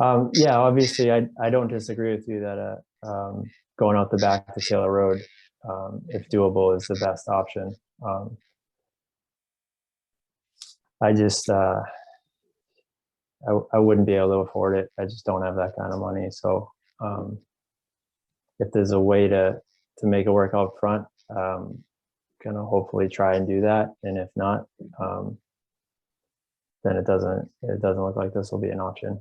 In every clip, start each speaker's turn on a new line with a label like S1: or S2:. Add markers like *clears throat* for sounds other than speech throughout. S1: Um, yeah, obviously, I, I don't disagree with you that, uh, um, going out the back to Taylor Road, um, if doable is the best option. Um, I just, uh, I, w- I wouldn't be able to afford it. I just don't have that kind of money. So, um, if there's a way to, to make it work out front, um, gonna hopefully try and do that. And if not, um, then it doesn't, it doesn't look like this will be an option.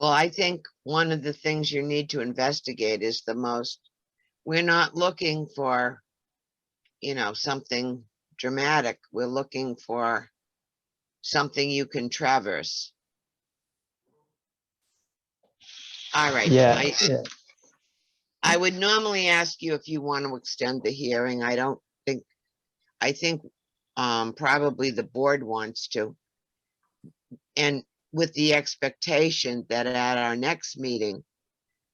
S2: Well, I think one of the things you need to investigate is the most, we're not looking for, you know, something dramatic. We're looking for something you can traverse. All right.
S1: Yeah,
S2: I-
S1: yeah.
S2: I would normally ask you if you want to extend the hearing. I don't think, I think um, probably the board wants to. And with the expectation that at our next meeting,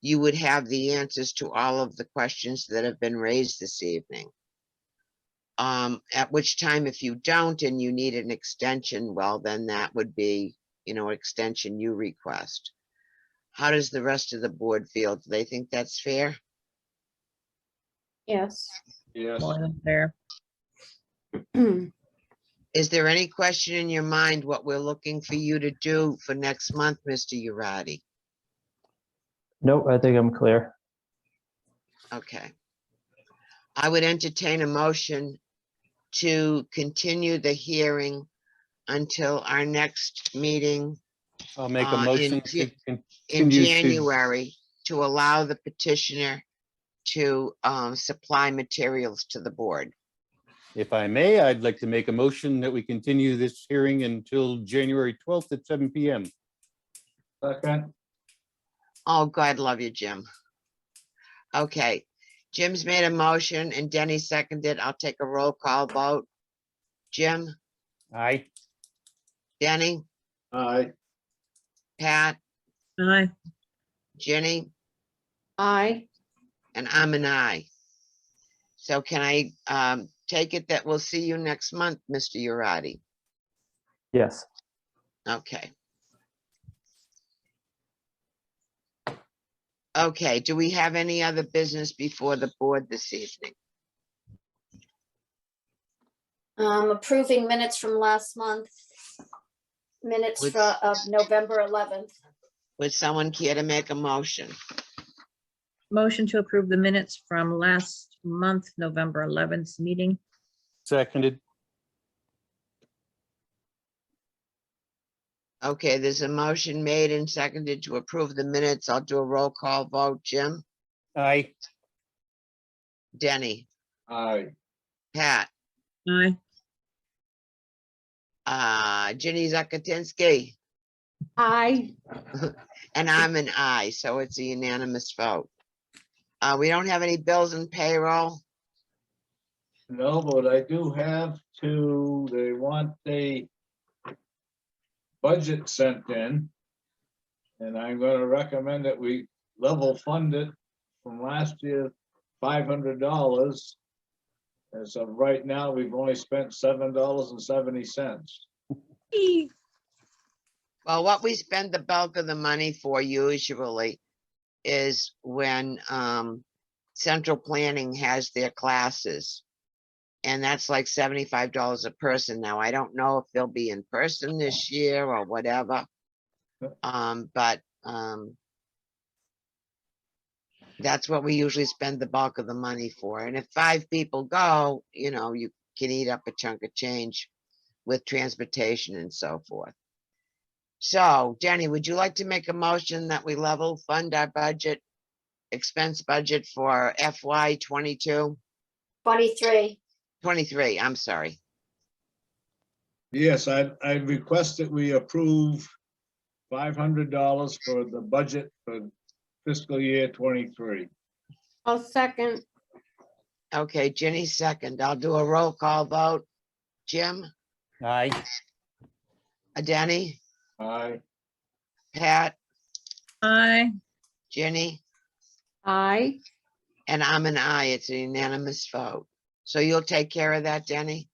S2: you would have the answers to all of the questions that have been raised this evening. Um, At which time, if you don't and you need an extension, well, then that would be, you know, extension you request. How does the rest of the board feel? Do they think that's fair?
S3: Yes. *clears throat*
S4: Yes,
S5: Well, that's fair.
S2: Is there any question in your mind what we're looking for you to do for next month, Mr. Uradi?
S1: Nope, I think I'm clear.
S2: Okay. I would entertain a motion to continue the hearing until our next meeting
S6: I'll make
S2: Uh,
S6: a
S2: in
S6: motion
S2: Ju-
S6: to con-
S2: in
S6: Continue to-
S2: January to allow the petitioner to um, supply materials to the board.
S6: If I may, I'd like to make a motion that we continue this hearing until January 12th at seven PM.
S4: second,
S2: Oh, God, love you, Jim. Okay, Jim's made a motion and Denny seconded. I'll take a roll call vote. Jim,
S6: Aye.
S2: Denny,
S4: aye,
S2: Pat,
S5: Aye.
S2: Jenny,
S3: I,
S2: and I'm an I. So can I um, take it that we'll see you next month, Mr. Uradi?
S1: Yes.
S2: Okay. Okay, do we have any other business before the board this evening?
S3: um, approving minutes from last month. Minutes
S2: Which-
S3: fro- of November eleventh.
S2: Would someone care to make a motion?
S5: Motion to approve the minutes from last month, November 11th meeting.
S6: Seconded.
S2: Okay, there's a motion made and seconded to approve the minutes. I'll do a roll call vote. Jim,
S6: Aye.
S2: Denny,
S4: aye,
S2: Pat,
S5: Aye.
S2: uh, Ginny Zakatinsky,
S3: I,
S2: and I'm an aye, so it's a unanimous vote. Uh, we don't have any bills and payroll.
S4: no, but I do have to, they want the budget sent in. And I'm gonna recommend that we level fund it from last year, five hundred dollars. As of right now, we've only spent seven dollars and seventy cents.
S5: Eee.
S2: Well, what we spend the bulk of the money for usually is when, um, central planning has their classes. And that's like seventy-five dollars a person. Now, I don't know if they'll be in person this year or whatever.
S4: Yep.
S2: Um, but, um, that's what we usually spend the bulk of the money for. And if five people go, you know, you can eat up a chunk of change with transportation and so forth. So, Jenny, would you like to make a motion that we level fund our budget, expense budget for FY 22,
S3: twenty-three.
S2: 23, I'm sorry.
S4: Yes, I, I request that we approve five hundred dollars for the budget for fiscal year twenty-three.
S3: I'll second.
S2: Okay, Jenny second. I'll do a roll call vote. Jim,
S6: Aye.
S2: uh, Denny,
S4: Aye,
S2: Pat,
S5: Aye.
S2: Jenny,
S3: I.
S2: and I'm an aye. It's a unanimous vote. So you'll take care of that, Denny?